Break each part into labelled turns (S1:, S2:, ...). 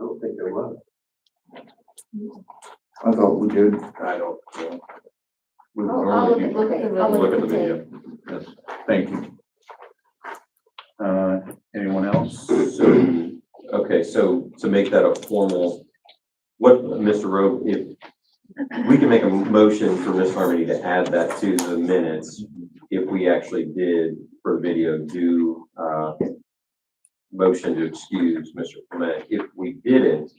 S1: I don't think there was.
S2: I thought we did. I don't. know. We
S3: I'll, I'll look at,
S2: normally-
S3: look at, I'll
S2: Look at the video. Yes, thank you. Uh, anyone else?
S4: So, okay, so to make that a formal, what, Mr. Rowe, if we can make a motion for Miss Harmony to add that to the minutes if we actually did for video do, uh, motion to excuse Mr. Clement. If we didn't,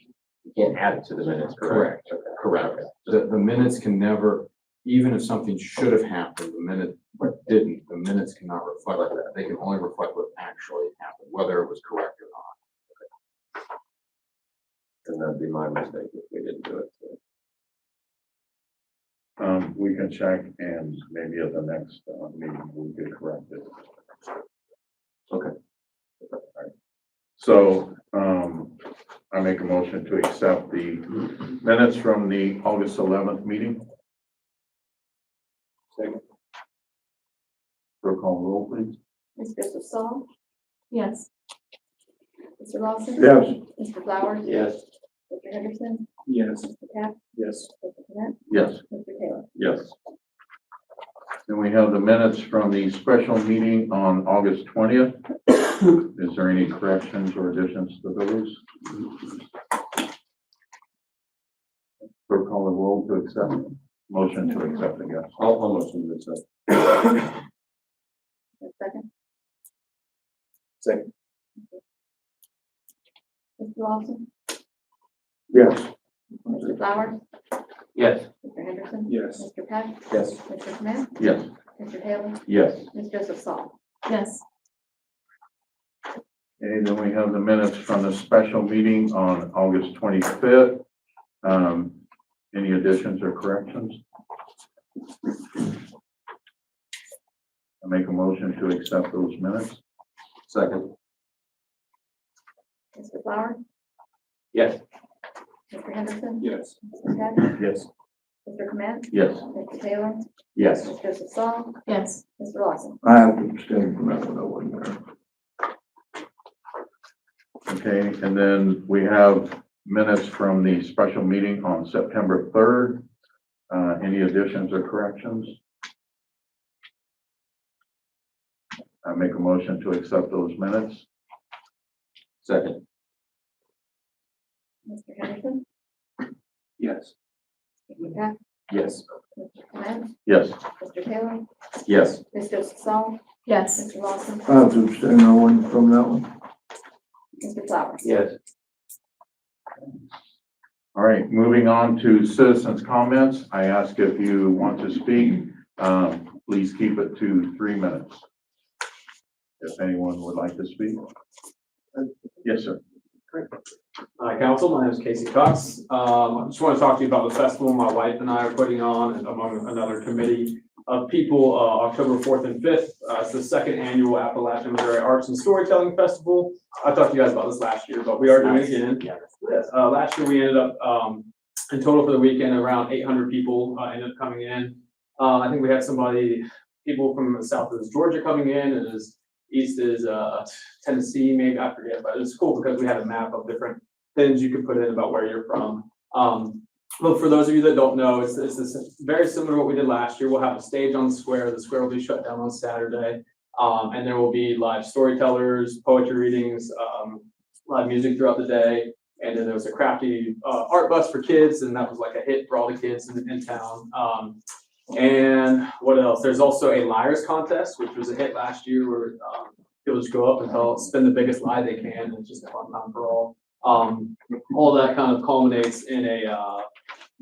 S4: we can't add it to the minutes, correct?
S5: Correct, correct. The, the minutes can never, even if something should have happened, the minute, but didn't, the minutes cannot reflect that. They can only reflect what actually happened, whether it was correct or not.
S4: And that'd be my mistake if we didn't do it.
S2: Um, we can check and maybe at the next uh, meeting, we could correct it.
S4: Okay.
S2: So, um, I make a motion to accept the minutes from the August eleventh meeting.
S1: Second.
S2: Roll call roll, please.
S3: Ms. Joseph Saul,
S6: Yes.
S3: Mr. Lawson.
S2: Yes.
S3: Mr. Flowers.
S1: Yes.
S3: Mr. Henderson,
S1: Yes.
S3: Mr. Cap,
S1: Yes.
S3: Mr. Clement,
S2: Yes.
S3: Mr. Taylor.
S2: Yes. And we have the minutes from the special meeting on August twentieth. Is there any corrections or additions to those? Clerk call the roll to accept, motion to accept, I guess.
S4: I'll, I'll motion to accept.
S3: Mr. Second,
S1: Second.
S3: Mr. Lawson,
S2: Yes.
S3: Mr. Flowers,
S1: Yes.
S3: Mr. Henderson.
S1: Yes.
S3: Mr. Peck,
S4: Yes.
S3: Mr. Clement,
S2: Yes.
S3: Mr. Taylor,
S2: Yes.
S3: Ms. Joseph Saul.
S6: Yes.
S2: Okay, then we have the minutes from the special meeting on August twenty-fifth. Um, any additions or corrections? I make a motion to accept those minutes.
S4: Second.
S3: Mr. Flowers,
S1: Yes.
S3: Mr. Henderson,
S1: Yes.
S3: Mr. Peck,
S1: Yes.
S3: Mr. Clement,
S2: Yes.
S3: Mr. Taylor,
S4: Yes.
S3: Ms. Joseph Saul,
S6: Yes.
S3: Mr. Lawson.
S2: I have abstained from that one, I wasn't there. Okay, and then we have minutes from the special meeting on September third. Uh, any additions or corrections? I make a motion to accept those minutes.
S4: Second.
S3: Mr. Henderson,
S1: Yes.
S3: Mr. Peck,
S4: Yes.
S3: Mr. Clement,
S2: Yes.
S3: Mr. Taylor,
S4: Yes.
S3: Ms. Joseph Saul,
S6: Yes.
S3: Mr. Lawson,
S2: I have to abstain, I wasn't from that one.
S3: Mr. Flowers.
S1: Yes.
S2: All right, moving on to citizens' comments. I ask if you want to speak, um, please keep it to three minutes. If anyone would like to speak. Yes, sir.
S7: Hi, Uh, council. My name is Casey Cox. Um, I just want to talk to you about the festival my wife and I are putting on and among another committee of people, uh, October fourth and fifth. Uh, it's the second annual Appalachian Missouri Arts and Storytelling Festival. I talked to you guys about this last year, but we are doing it again. Yes, uh, last year we ended up, um, in total for the weekend, around eight hundred people, uh, ended up coming in. Uh, I think we had somebody, people from the south is Georgia coming in and as east is, uh, Tennessee, maybe, I forget, but it's cool because we had a map of different things you could put in about where you're from. Um, but for those of you that don't know, it's, it's this- very similar to what we did last year. We'll have a stage on the square. The square will be shut down on Saturday. Um, and there will be live storytellers, poetry readings, um, live music throughout the day. And then there was a crafty, uh, art bus for kids and that was like a hit for all the kids in, in town. Um, and what else? There's also a liars contest, which was a hit last year where, um, people just go up and tell, spin the biggest lie they can. and It's just a fun time for all. Um, all that kind of culminates in a uh,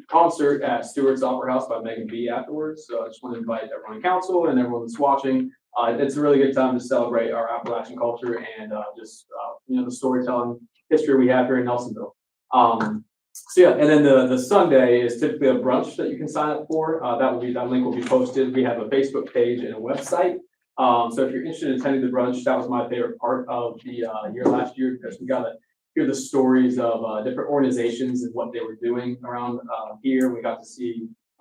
S7: concert at Stewart's Opera House by Megan B afterwards. So I just want to invite everyone in council and everyone that's watching. Uh, It's a really good time to celebrate our Appalachian culture and uh, just, uh, you know, the storytelling history we have here in Nelsonville. Um, So yeah, and then the, the Sunday is typically a brunch that you can sign up for. Uh, That will be, that link will be posted. We have a Facebook page and a website. Um, So if you're interested in attending the brunch, that was my favorite part of the uh, year last year because we got a hear the stories of uh, different organizations and what they were doing around uh, here. We got to see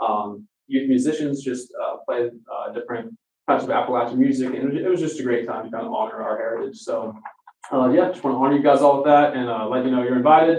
S7: um, youth musicians just uh, play uh, different types of Appalachian music, and it was- it was just a great time to kind of honor our heritage. So, uh, yeah, just want to honor you guys all with that, and uh, let you know you're invited.